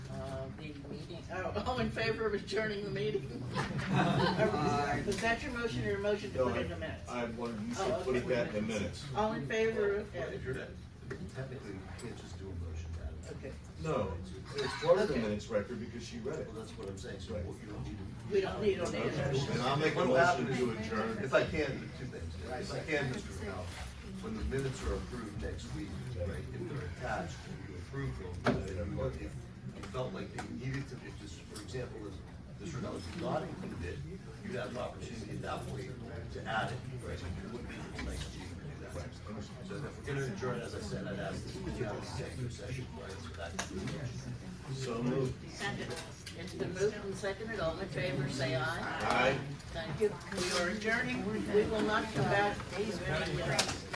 Uh, all in favor of adjourning the meeting? Aye. Was that your motion or a motion to No, put I, in the minutes? I wanted, you Oh, should put okay. it back in the minutes. All in favor of, If okay, you're, technically, you can't just do a motion out of it. No, it's part of the Okay. minutes record because she read it. Well, that's what I'm saying, so Right. what you don't need to. we don't need, don't need a motion. And I'll make a What motion happened- to adjourn. If I can, two things, if I can, Mr. Powell, when the minutes are approved next week, right, if they're attached, and you approve them, then you, if you felt like they needed to, if this, for example, if this was not included, you'd have an opportunity at that point to add it, right? You wouldn't be able to next year to do that. So if we're gonna adjourn, as I said, I'd ask that we have a executive session, right, so that could be. So moved. Second. It's been moved and seconded, all in favor, say aye. Aye. Thank you. We are adjourning, we will not come back. to any, uh,